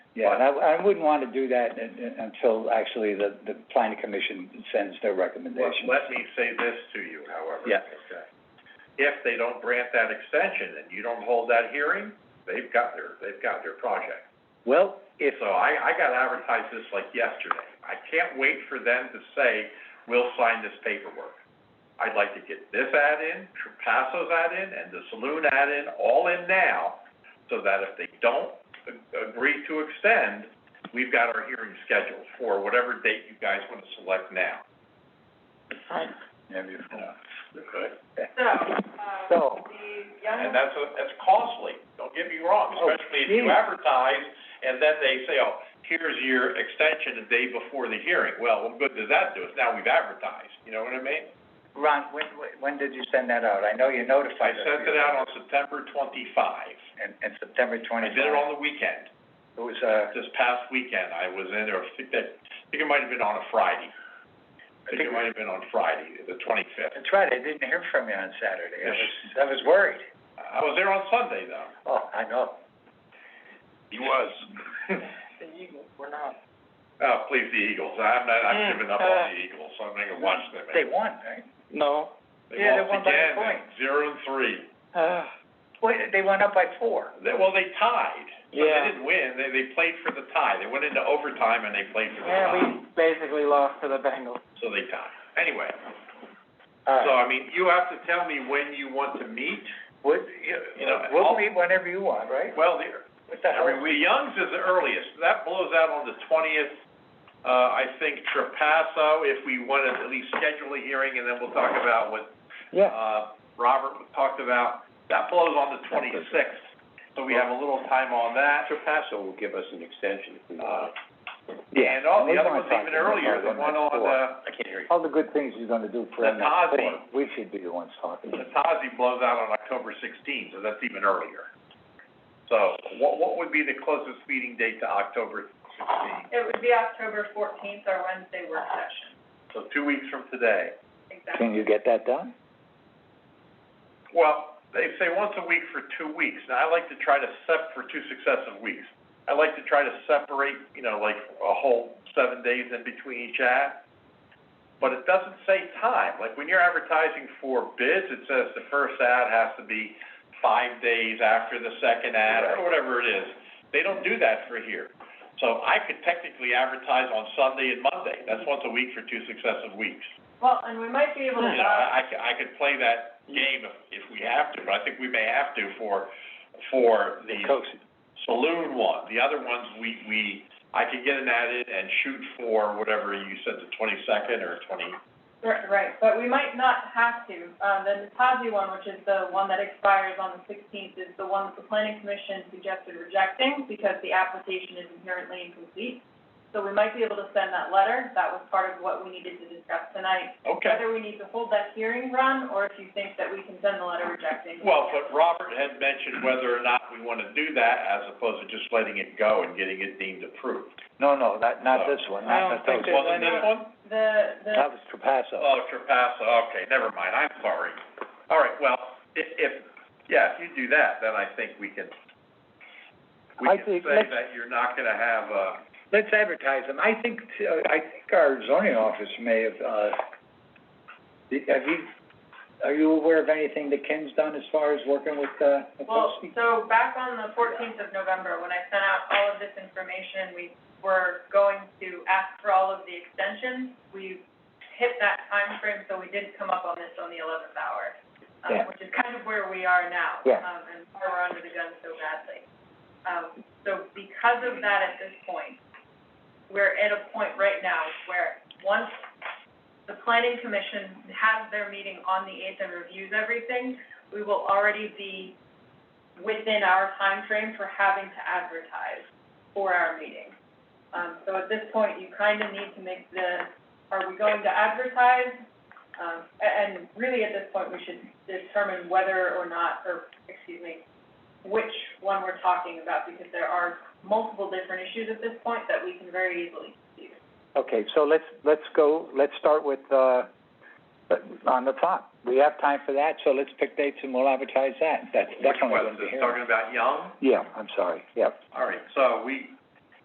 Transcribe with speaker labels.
Speaker 1: Yeah, and I, I wouldn't want to do that un- un- until actually the, the planning commission sends their
Speaker 2: Well,
Speaker 1: recommendation.
Speaker 2: let me say this to you, however.
Speaker 1: Yeah.
Speaker 2: Okay. If they don't grant that extension and you don't hold that hearing, they've got their, they've got their project.
Speaker 1: Well, if,
Speaker 2: So I, I got advertised this like yesterday. I can't wait for them to say, we'll sign this paperwork. I'd like to get this ad in, Trapasso's ad in, and the saloon ad in, all in now, so that if they don't a- agree to extend, we've got our hearing scheduled for whatever date you guys want to select now.
Speaker 1: Yeah, beautiful.
Speaker 2: Okay.
Speaker 3: So, um,
Speaker 1: So,
Speaker 3: the
Speaker 2: And
Speaker 3: young,
Speaker 2: that's, a- that's costly, don't get me wrong,
Speaker 1: Oh,
Speaker 2: especially if you
Speaker 1: geez.
Speaker 2: advertise, and then they say, oh, here's your extension the day before the hearing. Well, what good does that do? It's now we've advertised, you know what I mean?
Speaker 4: Uh,
Speaker 1: Ron, when, when- when did you send that out? I know you
Speaker 2: I
Speaker 1: notified us.
Speaker 2: sent it out on September twenty-five.
Speaker 1: And, and September
Speaker 2: I
Speaker 1: twenty-five.
Speaker 2: did it on the weekend,
Speaker 1: It was, uh,
Speaker 2: this past weekend, I was in, or I think that, I think it might have been on a Friday. I think it might have been on Friday, the twenty-fifth.
Speaker 1: that's right, I didn't hear from you on Saturday. I was, I was worried.
Speaker 2: I was there on Sunday, though.
Speaker 1: Oh, I know.
Speaker 2: He was. The Eagles were not. Oh, please, the Eagles. I'm not, I'm giving up on the Eagles. I'm not gonna watch them.
Speaker 1: Mm. They won, right?
Speaker 4: No.
Speaker 1: yeah, they won by a
Speaker 2: again,
Speaker 1: point.
Speaker 2: zero and three.
Speaker 4: Uh,
Speaker 1: Well, they went up by four.
Speaker 2: They, well, they tied. but
Speaker 4: Yeah.
Speaker 2: They didn't win. They, they played for the tie. They went into overtime and they played for the
Speaker 4: yeah,
Speaker 2: tie.
Speaker 4: we basically lost to the Bengals.
Speaker 2: So they tied. Anyway,
Speaker 1: All
Speaker 2: so
Speaker 1: right.
Speaker 2: I mean, you have to tell me when you want to meet.
Speaker 1: Would, you,
Speaker 2: You know,
Speaker 1: we'll
Speaker 2: I'll-
Speaker 1: meet whenever you want, right?
Speaker 2: Well, the,
Speaker 1: What the hell?
Speaker 2: I mean, we, Young's is the earliest, that blows out on the twentieth. Uh, I think Trapasso, if we want to at least schedule a hearing, and then we'll talk about what,
Speaker 4: Yeah.
Speaker 2: uh, Robert talked about, that blows on the twenty-sixth. So we have a little time on that.
Speaker 5: Paso will give us an extension if we
Speaker 2: Uh,
Speaker 5: want.
Speaker 1: Yeah.
Speaker 2: and all,
Speaker 1: we
Speaker 2: the other
Speaker 1: wanna
Speaker 2: one's
Speaker 1: talk
Speaker 2: even
Speaker 1: to them
Speaker 2: earlier,
Speaker 1: about it
Speaker 2: the one
Speaker 1: next
Speaker 2: on,
Speaker 1: door.
Speaker 2: uh,
Speaker 5: I can't hear you.
Speaker 1: All the good things you're gonna do for
Speaker 2: The
Speaker 1: them next
Speaker 2: Tazi.
Speaker 1: week, we should be the ones talking.
Speaker 2: the Tazi blows out on October sixteenth, so that's even earlier. So what, what would be the closest meeting date to October sixteenth?
Speaker 3: it would be October fourteenth, our Wednesday work session,
Speaker 2: So two weeks from today.
Speaker 3: exactly.
Speaker 1: Can you get that done?
Speaker 2: Well, they say once a week for two weeks. Now, I like to try to sep, for two successive weeks. I like to try to separate, you know, like a whole seven days in between each ad. But it doesn't say time. Like when you're advertising for bids, it says the first ad has to be five days after the second ad or whatever it is. They don't do that for here. So I could technically advertise on Sunday and Monday. That's once a week for two successive weeks.
Speaker 3: Well, and we might be able to,
Speaker 2: You know,
Speaker 3: uh,
Speaker 2: I, I could, I could play that game if, if we have to, but I think we may have to for, for the
Speaker 1: Coach,
Speaker 2: saloon one. The other ones, we, we, I could get an ad in and shoot for whatever you said, the twenty-second or twenty,
Speaker 3: right, right, but we might not have to. Um, the Natazi one, which is the one that expires on the sixteenth, is the one that the planning commission suggested rejecting because the application is inherently incomplete. So we might be able to send that letter, that was part of what we needed to discuss tonight.
Speaker 2: okay.
Speaker 3: Whether we need to hold that hearing, Ron, or if you think that we can send the letter rejecting.
Speaker 2: Well, but Robert had mentioned whether or not we wanna do that as opposed to just letting it go and getting it deemed approved.
Speaker 1: no, no, not, not this one,
Speaker 4: I
Speaker 1: not
Speaker 4: don't
Speaker 1: the
Speaker 4: think
Speaker 1: Coach.
Speaker 4: there's
Speaker 2: Wasn't this
Speaker 4: any-
Speaker 2: one?
Speaker 3: The, the.
Speaker 1: That was Trapasso.
Speaker 2: Oh, Trapasso, okay, never mind, I'm sorry. All right, well, if, if, yeah, if you do that, then I think we can, we
Speaker 1: I
Speaker 2: can
Speaker 1: think-
Speaker 2: say
Speaker 1: let's-
Speaker 2: that you're not gonna have, uh,
Speaker 1: Let's advertise them. I think, uh, I think our zoning office may have, uh, did- have you, are you aware of anything that Ken's done as far as working with, uh,
Speaker 3: Well,
Speaker 1: Nikosi?
Speaker 3: so back on the fourteenth of November, when I sent out all of this information, we were going to ask for all of the extensions. We hit that timeframe, so we didn't come up on this on the eleventh hour,
Speaker 1: Yeah.
Speaker 3: um, which is kind of where we are now.
Speaker 1: Yeah.
Speaker 3: Um, and why we're under the gun so badly. Um, so because of that at this point, we're at a point right now where once the planning commission has their meeting on the eighth and reviews everything, we will already be within our time frame for having to advertise for our meeting. Um, so at this point, you kind of need to make the, are we going to advertise? Um, a- and really at this point, we should determine whether or not, or, excuse me, which one we're talking about, because there are multiple different issues at this point that we can very easily do.
Speaker 1: Okay, so let's, let's go, let's start with, uh, on the top. We have time for that, so let's pick dates and we'll advertise that. That's
Speaker 2: which
Speaker 1: definitely
Speaker 2: was
Speaker 1: gonna be
Speaker 2: this,
Speaker 1: here.
Speaker 2: talking about Young?
Speaker 1: Yeah, I'm sorry, yeah.
Speaker 2: All right, so we,